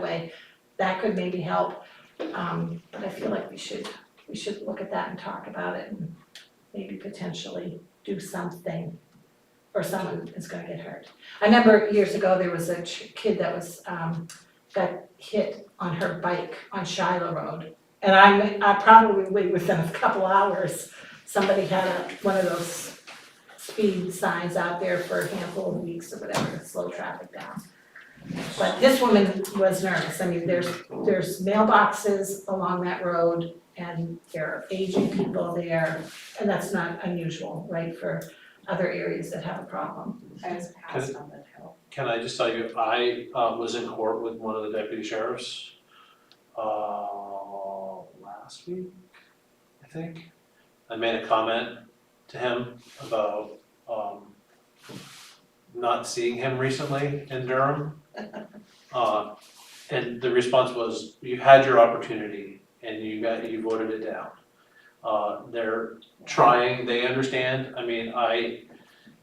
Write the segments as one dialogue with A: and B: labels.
A: way, that could maybe help. Um, but I feel like we should, we should look at that and talk about it and maybe potentially do something. Or someone is gonna get hurt. I remember years ago, there was a ch- kid that was, um, got hit on her bike on Shiloh Road. And I'm, I probably within a couple hours, somebody had a, one of those speed signs out there for a handful of weeks or whatever, to slow traffic down. But this woman was nervous, I mean, there's, there's mailboxes along that road and there are aging people there. And that's not unusual, right, for other areas that have a problem.
B: I was passed on that hill.
C: Can I just tell you, I uh was in court with one of the deputy sheriffs uh last week, I think. I made a comment to him about um not seeing him recently in Durham. Uh and the response was, you had your opportunity and you got, you voted it down. Uh they're trying, they understand, I mean, I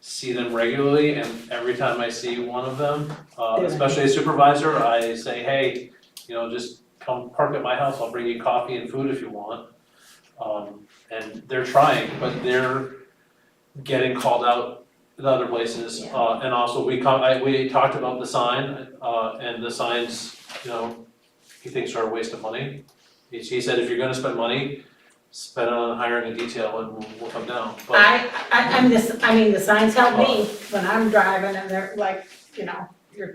C: see them regularly and every time I see one of them, uh
A: Yeah.
C: especially a supervisor, I say, hey, you know, just come park at my house, I'll bring you coffee and food if you want. Um and they're trying, but they're getting called out in other places.
A: Yeah.
C: Uh and also we come, I, we talked about the sign, uh and the signs, you know, he thinks are a waste of money. He he said, if you're gonna spend money, spend it on hiring a detail and we'll we'll come down, but.
A: I, I, I'm this, I mean, the signs help
D: Oh.
A: me when I'm driving and they're like, you know, you're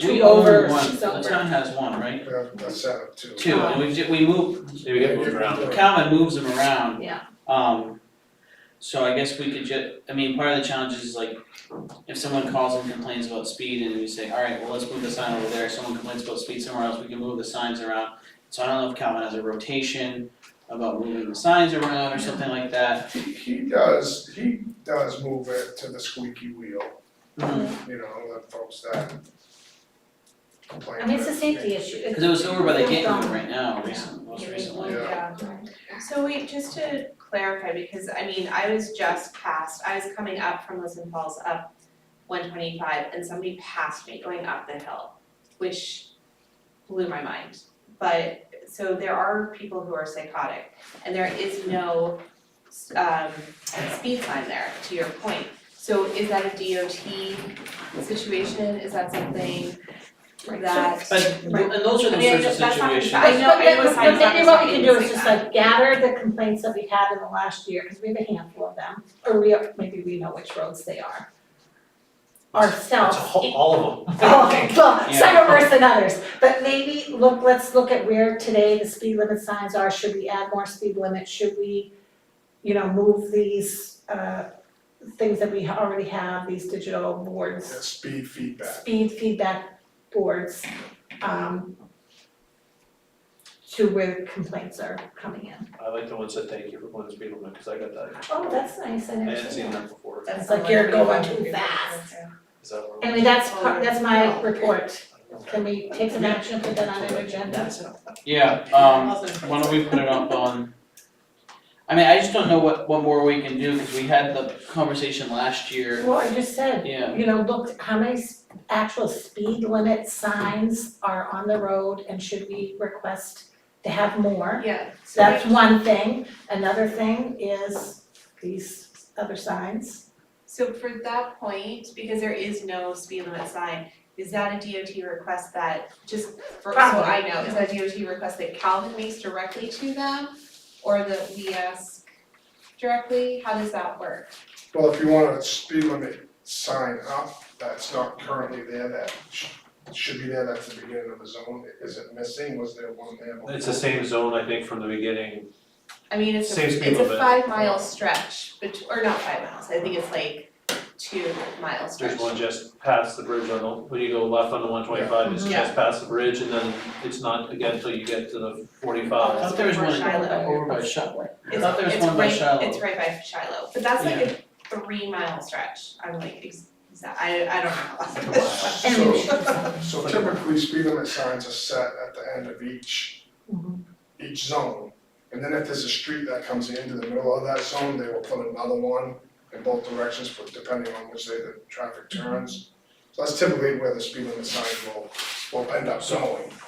D: We
A: two over,
D: own one,
A: she's
D: the
A: over.
D: town has one, right?
E: Yeah, that's set up too.
D: Two, and we ju- we move,
C: Maybe get moved around.
D: Calvin moves them around.
A: Yeah.
D: Um, so I guess we could ju- I mean, part of the challenge is like, if someone calls and complains about speed and we say, alright, well, let's move the sign over there, if someone complains about speed somewhere else, we can move the signs around. So I don't know if Calvin has a rotation about moving the signs around or something like that.
E: He, he does, he does move it to the squeaky wheel,
D: Mm-hmm.
E: you know, the folks that complain.
A: I mean, it's a
E: that-
A: safety issue. It's-
D: Cause it was over by the
A: It was
D: gate
A: on.
D: right now,
A: Yeah.
D: recent, most
B: Yeah.
D: recently.
E: Yeah.
B: Yeah, so wait, just to clarify, because I mean, I was just passed, I was coming up from Lisbon Falls up one twenty-five and somebody passed me going up the hill, which blew my mind. But, so there are people who are psychotic and there is no um speed sign there, to your point. So is that a DOT situation? Is that something
A: Right.
B: that?
D: But, and those are
B: I
D: the
B: mean, I
D: sorts of
B: just- that's not-
D: situations.
B: I know- I know
A: But- but-
B: signs
A: but maybe what we
B: aren't
A: can do
B: the
A: is
B: same
A: just
B: thing.
A: like gather the complaints that we had in the last year, cause we have a handful of them, or we, maybe we know which roads they are. Ourselves.
C: It's all, all of them.
A: Oh, well, some
D: Yeah.
A: are worse than others, but maybe, look, let's look at where today the speed limit signs are, should we add more speed limit, should we, you know, move these, uh, things that we already have, these digital boards
E: that Speed feedback.
A: speed feedback boards, um, to where complaints are coming in.
C: I like the ones that thank you for going to speed limit, because I got that.
A: Oh, that's nice, I
C: I
A: never
C: hadn't
A: seen
C: seen
A: that.
C: that before.
A: It's like you're going too fast.
C: Is that where?
A: Anyway, that's, part- that's my report. Can we take some action, put that on an agenda?
D: Yeah, um, Why don't we put it up on? I mean, I just don't know what, what more we can do, because we had the conversation last year,
A: Well, I just said,
D: yeah.
A: you know, look, how many s- actual speed limit signs are on the road and should we request to have more?
B: Yeah, so
A: That's
B: wait,
A: one thing. Another thing is these other signs.
B: so for that point, because there is no speed limit sign, is that a DOT request that, just for, so
A: Probably.
B: I know, is that a DOT request that Calvin makes directly to them? Or that we ask directly, how does that work?
E: Well, if you want a speed limit sign up that's not currently there, that sh- should be there, that's the beginning of the zone, is it missing, was there one there? before?
C: It's the same zone, I think, from the beginning.
B: I mean, it's a,
C: Same speed
B: it's a
C: limit.
B: five mile stretch, but, or not five miles, I think it's like two mile stretch.
C: There's one just past the bridge on the, when you go left on the one twenty-five, it's
B: Yeah.
C: just past the bridge, and then it's not again until you get to the
D: I
C: forty-five.
D: thought there was one
B: Shiloh.
D: over by Shiloh. I
B: It's-
D: thought there was one by Shiloh.
B: It's right, it's right by Shiloh, but that's like a three mile stretch, I'm like, ex- exa- I I don't know.
E: So, so typically speed limit signs are set at the end of each,
A: Mhm.
E: each zone. And then if there's a street that comes into the middle of that zone, they will put another one in both directions for, depending on which way the traffic turns. So that's typically where the speed limit sign will, will end up going.